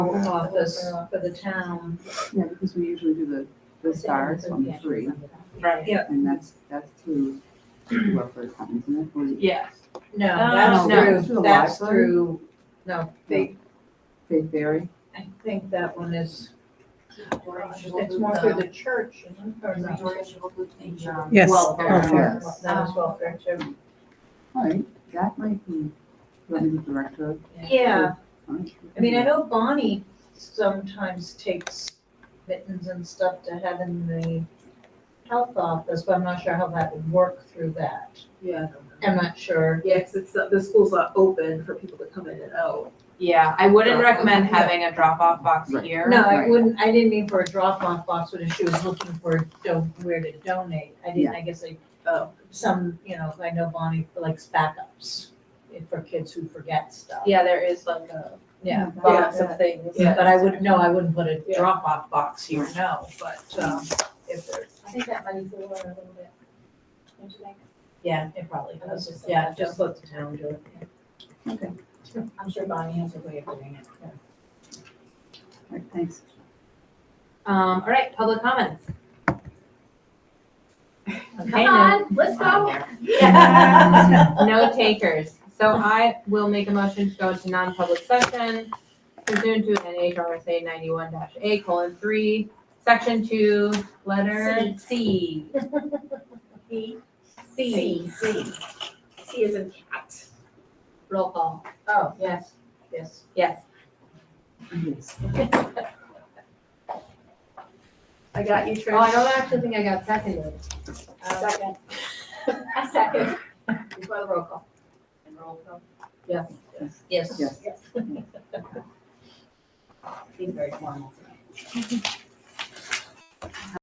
office Uh, for the town. Yeah, because we usually do the, the stars on three, Right. and that's, that's through Wellford Commons, isn't it? Or is it Yes. No, Oh, that's no. Through through, the that's library? through, no, they, Faith Berry? I think that one is, It's more through the church, isn't it? Or No. not? Yes. welfare, Yes. that is welfare too. All right, that might be, let me director. Yeah, all right. I mean, I know Bonnie sometimes takes mittens and stuff to have in the health office, but I'm not sure how that would work through that. Yeah, I'm not sure. yeah, because it's, not- the school's not open for people to come in and out. Yeah, I wouldn't Drop-off. recommend having a drop-off box Right. here. No, I Right. wouldn't, I didn't mean for a drop-off box, but if she was looking for, don- where to donate, I didn't, I guess I Oh, some, you know, I know Bonnie likes backups for kids who forget stuff. Yeah, there is like a Yeah, box of things. Yeah. but I would, no, I wouldn't put a Yeah. drop-off box here, no, but, um, if there, I think that money's a little, a little bit. Don't you think? yeah, it probably I was does, just- yeah, just let the town do it. I'm sure Bonnie has a way of doing it. All right, thanks. Um, all right, public comments. Okay, Come no- on, let's go. Yeah. No takers. So I will make a motion to go into non-public session pursuant to NHRSA ninety-one dash A colon three, section two, letter C. C. C. C. C is in cat. Roll call. Oh, yes, yes. Yes. Yes. I got you, Trish. Oh, I don't actually think I got seconded. Um, Second. A second. Before the roll call. And roll call? Yes, yes. Yes. Being very formal.